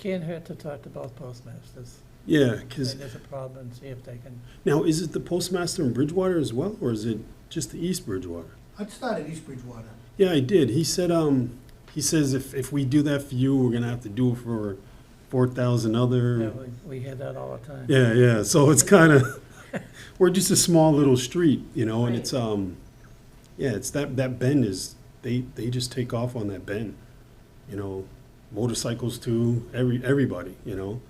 Can't hurt to talk to both postmasters. Yeah, If because there's a problem, and see if they can, now is it the postmaster in Bridgewater as well, or is it just the East Bridgewater? I'd start at East Bridgewater. Yeah, I did. He said, um, he says if, if we do that for you, we're gonna have to do it for four thousand yeah, other. we- we hear that all the time. Hmm. Yeah, yeah. So it's kind of we're just a small little street, you know, and Right. it's um, yeah, it's that that bend is they they just take off on that bend, you know, motorcycles too, every everybody, you know.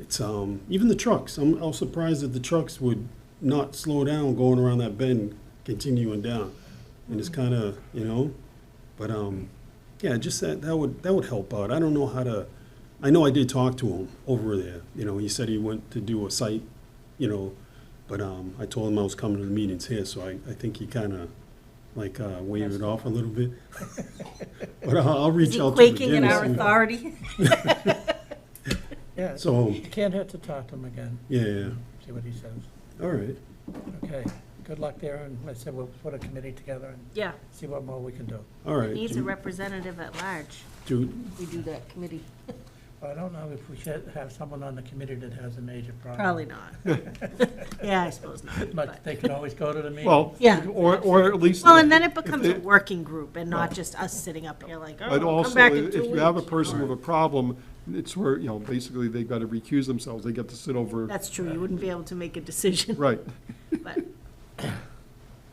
It's um even the trucks. I'm I was surprised that the trucks would not slow down going around that bend, continuing down, and it's kind of you know, but um, yeah, just that that would that would help out. I don't know how to. I know I did talk to him over there. You know, he said he went to do a site, you know, but um, I told him I was coming to the meetings here, so I, I think he kind of like uh, waved it off a little bit. but I'll, I'll reach Is he out to quaking him in again our and see- authority? Yeah, So it can't hurt to talk to him again, yeah, yeah, see what he says. all right. Okay, good luck there, and like I said, we'll put a committee together and Yeah, see what more we can do. All right. needs a Do- representative at large. do- We do that committee. I don't know if we should have someone on the committee that has a major problem. Probably not. Yeah, I suppose not. But but- they can always go to the meeting. Well, Yeah. or, or at least. Well, and then it if- if becomes a they- working group and not just us sitting up here like, But oh, come also, back in if two you have a weeks. person with a problem, it's where, you know, basically they've got to recuse themselves. They get to sit over, That's true, you wouldn't be able to make a decision, right. but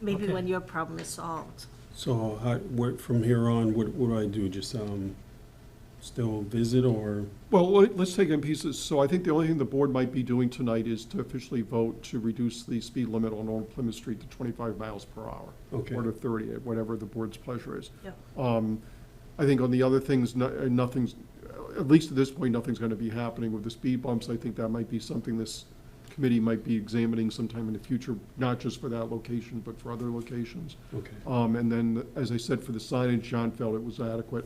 maybe Okay. when your problem is solved. So how, what, from here on, what, what do I do? Just um, still visit or Well, let- let's take it in pieces. So I think the only thing the board might be doing tonight is to officially vote to reduce the speed limit on Old Plymouth Street to 25 miles per hour. Okay. Or to 30, whatever the board's pleasure is. Yep. Um, I think on the other things, no- uh, nothing's, at least at this point, nothing's going to be happening with the speed bumps. I think that might be something this committee might be examining sometime in the future, not just for that location, but for other locations. okay, Um, and then, as I said, for the signage, John felt it was adequate,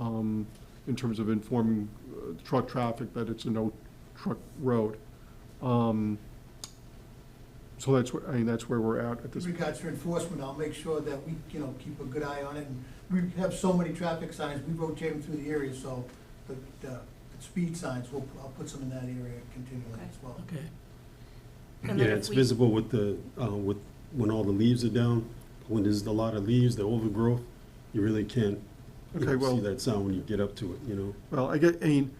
um, in terms of informing uh, truck traffic that it's a no truck road. Um, so that's where, I mean, that's where we're at at In this. regards to enforcement, I'll make sure that we, you know, keep a good eye on it. And We have so many traffic signs, we rotate them through the area, so the, the speed signs, we'll, I'll put some in that area continually as well. Okay, And yeah, then if it's we- visible with the uh, with when all the leaves are down. When there's a lot of leaves, the overgrowth, you really can't you Okay, know, well- see that sound when you get up to it. You know. Well, I get, I mean,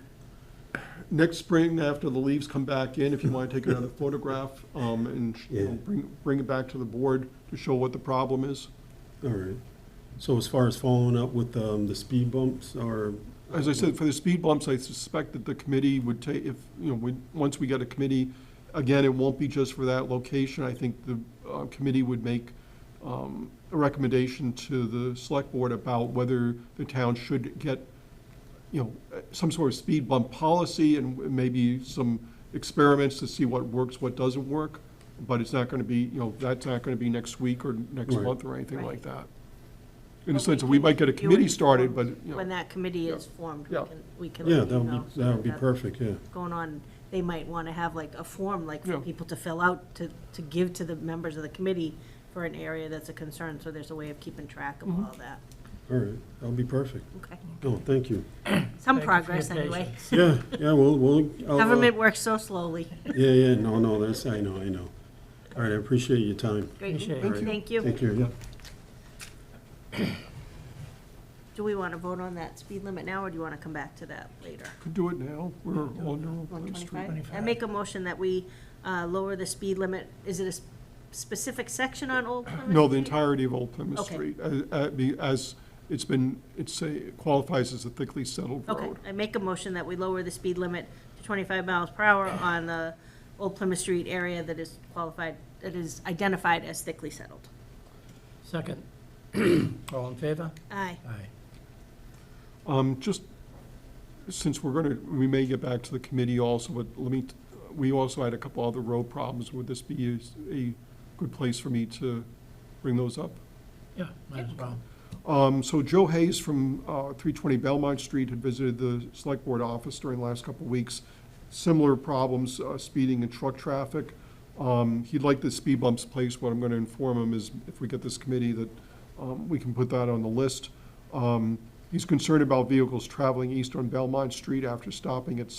next spring, after the leaves come back in, if you want to take another photograph, um, and, you know, Yeah. bring, bring it back to the board to show what the problem is. All right. So as far as following up with um, the speed bumps or As I said, for the speed bumps, I suspect that the committee would take, if, you know, when, once we get a committee, again, it won't be just for that location. I think the uh, committee would make um, a recommendation to the select board about whether the town should get, you know, some sort of speed bump policy and maybe some experiments to see what works, what doesn't work. But it's not going to be, you know, that's not going to be next week or next Right. month or anything like Right. that. In a sense, we might get a committee started, but, you know. When that committee is Yeah. formed, we Yeah. can, we can. yeah, let that you would know be so that would be that's perfect. Yeah. Going on, they might want to have like a form, like Yeah. for people to fill out, to, to give to the members of the committee for an area that's a concern, so there's a way of keeping track Mm-hmm. of all that. All right. That would be perfect. Okay, Oh, thank you. some Thank you for your progress anyway. Yeah, yeah. We'll we'll. I'll, uh, Government works so slowly. Yeah, yeah. No, no. That's I know. I know. All right. I appreciate your time. Great, Appreciate it. All right. thank you. Take care. Yeah. Do we want to vote on that speed limit now, or do you want to come back to that later? Could do it now, we're on One Old Plymouth Street. twenty-five? I 25. make a motion that we uh, lower the speed limit. Is it a s- specific section on Old Plymouth? No, the Street? entirety of Old Plymouth Okay. Street, as- uh, be- as it's been, it's a, qualifies as a thickly settled Okay, road. I make a motion that we lower the speed limit to 25 miles per hour on the Old Plymouth Street area that is qualified, that is identified as thickly settled. second. All in favor? Aye. Aye. Um, Just, since we're going to, we may get back to the committee also, but let me, t- we also had a couple other road problems. Would this be a s- a good place for me to bring those up? Yeah, might as well. Um, So Joe Hayes from uh, 320 Belmont Street had visited the Select Board office during the last couple of weeks. Similar problems, uh, speeding and truck traffic. Um, He'd like the speed bumps placed. What I'm going to inform him is if we get this committee that um, we can put that on the list. Um, He's concerned about vehicles traveling east on Belmont Street after stopping at